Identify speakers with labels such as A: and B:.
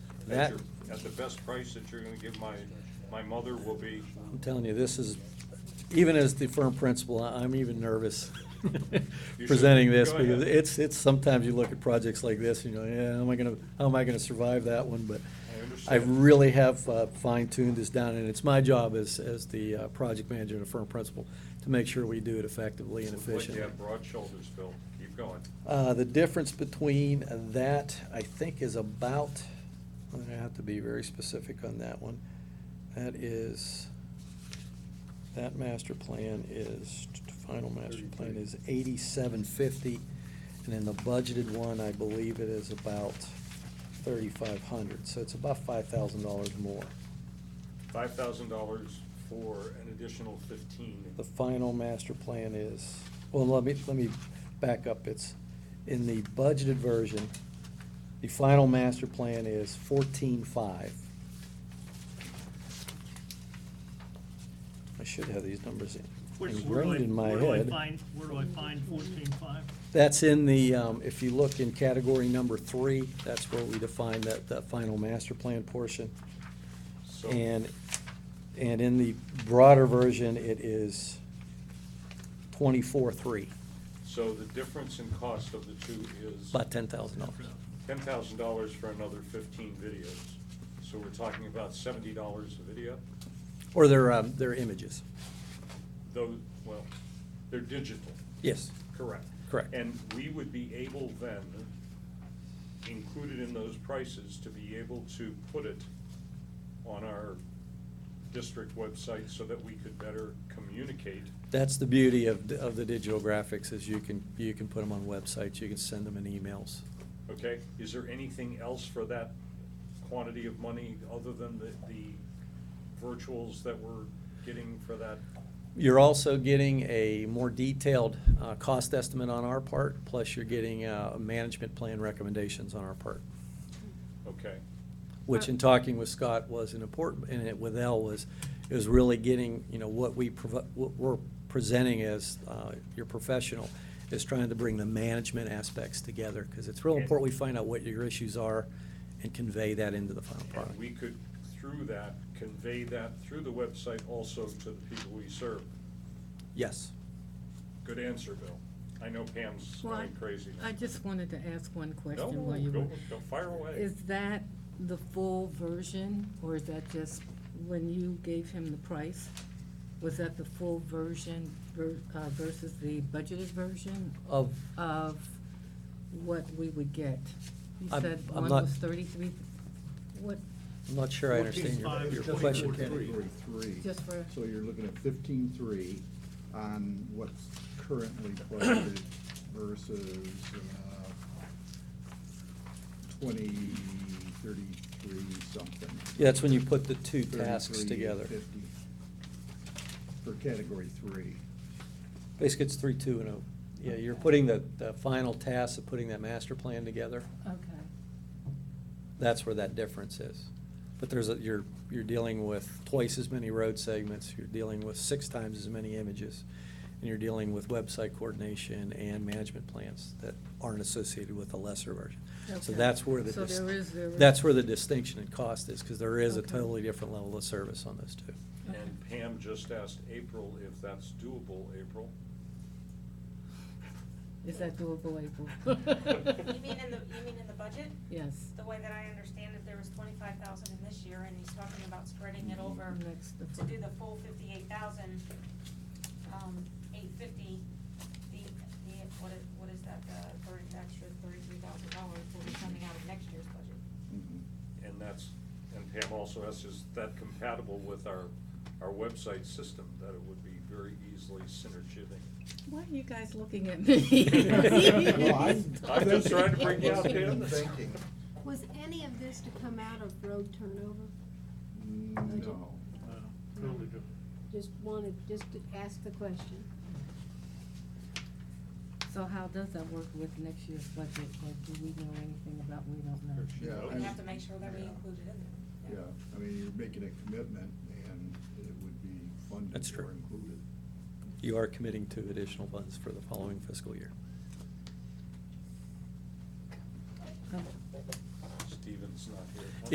A: That-
B: at your, at the best price that you're gonna give my, my mother will be,
A: I'm telling you, this is, even as the firm principal, I- I'm even nervous
B: should.
A: presenting this,
B: Go ahead.
A: because it's, it's, sometimes you look at projects like this, and you're like, yeah, how am I gonna, how am I gonna survive that one, but
B: I
A: I
B: understand.
A: really have uh, fine-tuned this down, and it's my job as, as the uh, project manager and a firm principal to make sure we do it effectively and
B: like you
A: efficiently.
B: have broad shoulders, Bill. Keep going.
A: Uh, The difference between that, I think, is about, I'm gonna have to be very specific on that one. That is, that master plan is, final master plan is eighty-seven fifty. And then the budgeted one, I believe it is about thirty-five hundred, so it's about five thousand dollars more.
B: Five thousand dollars for an additional fifteen.
A: The final master plan is, well, let me, let me back up. It's, in the budgeted version, the final master plan is fourteen-five. I should have these numbers in-
C: Which- where do I-
A: ingrained in my
C: Where do I
A: head.
C: find, where do I find fourteen-five?
A: That's in the, um, if you look in category number three, that's where we define that, that final master plan portion.
B: So
A: And, and in the broader version, it is twenty-four-three,
B: So the difference in cost of the two is
A: about ten thousand dollars.
B: ten thousand dollars for another fifteen videos. So we're talking about seventy dollars a video,
A: Or their, um, their images.
B: though, well, they're digital.
A: Yes,
B: Correct.
A: Correct.
B: And we would be able then, included in those prices, to be able to put it on our district website so that we could better communicate.
A: that's the beauty of, the- of the digital graphics, is you can, you can put them on websites, you can send them in emails.
B: Okay, is there anything else for that quantity of money other than the, the virtuals that we're getting for that?
A: You're also getting a more detailed, uh, cost estimate on our part, plus you're getting, uh, management plan recommendations on our part.
B: Okay,
A: which in talking with Scott was an important, and it with Elle was, is really getting, you know, what we, provo- what we're presenting as uh, your professional, is trying to bring the management aspects together, because it's real important we find out what your issues are and convey that into the final
B: and
A: product.
B: we could, through that, convey that through the website also to the people we serve.
A: Yes.
B: Good answer, Bill. I know Pam's
D: Well,
B: going crazy.
D: I just wanted to ask one
B: No,
D: question while you
B: go,
D: were.
B: go fire away.
D: Is that the full version, or is that just when you gave him the price? Was that the full version ver- uh, versus the budgeted version
A: Of,
D: of what we would get? You
A: I'm-
D: said
A: I'm
D: one
A: not-
D: was thirty-three, what,
A: I'm not sure I understand your,
C: 14.5
A: your
C: is
E: Just
A: question.
E: for
C: 24.3.
E: Category three,
D: just for,
E: so you're looking at fifteen-three on what's currently budgeted versus, uh, twenty, thirty-three something.
A: Yeah, that's when you put the two tasks
E: 33,
A: together.
E: 50, For category three.
A: Basically, it's three, two, and a, yeah, you're putting the, the final task of putting that master plan together.
D: okay.
A: That's where that difference is. But there's, a you're, you're dealing with twice as many road segments, you're dealing with six times as many images, and you're dealing with website coordination and management plans that aren't associated with the lesser version. So
D: Okay.
A: that's where the,
D: So
A: dis-
D: there is- there is-
A: that's where the distinction in cost is, because there is a
D: Okay.
A: totally different level of service on those two.
B: And Pam just asked April if that's doable, April.
D: Is that doable, April?
F: You mean in the, you mean in the budget?
D: Yes,
F: The way that I understand it, there was twenty-five thousand in this year, and he's talking about spreading it over
D: Mm-hmm. next, the
F: to do the full fifty-eight thousand, um, eight fifty, the, the, what is, what is that, the thirty, extra thirty-three thousand dollars will be coming out of next year's budget.
E: Mhm.
B: And that's, and Pam also asked, is that compatible with our, our website system? That it would be very easily synergistic.
D: Why are you guys looking at me?
E: Well, I'm-
B: I'm Mm-hmm. just trying to bring you out, Pam.
E: Thinking.
G: Was any of this to come out of road turnover?
E: No.
C: Totally different.
G: Just wanted, just to ask the question.
D: So how does that work with next year's budget, or do we know anything about, we don't know?
E: Yeah, I-
F: We have to make sure that we
E: Yeah.
F: include it in
E: Yeah,
F: there.
E: I mean, you're making a commitment and it would be funded
A: That's true.
E: or included.
A: You are committing to additional funds for the following fiscal year.
D: Um,
B: Steven's not here.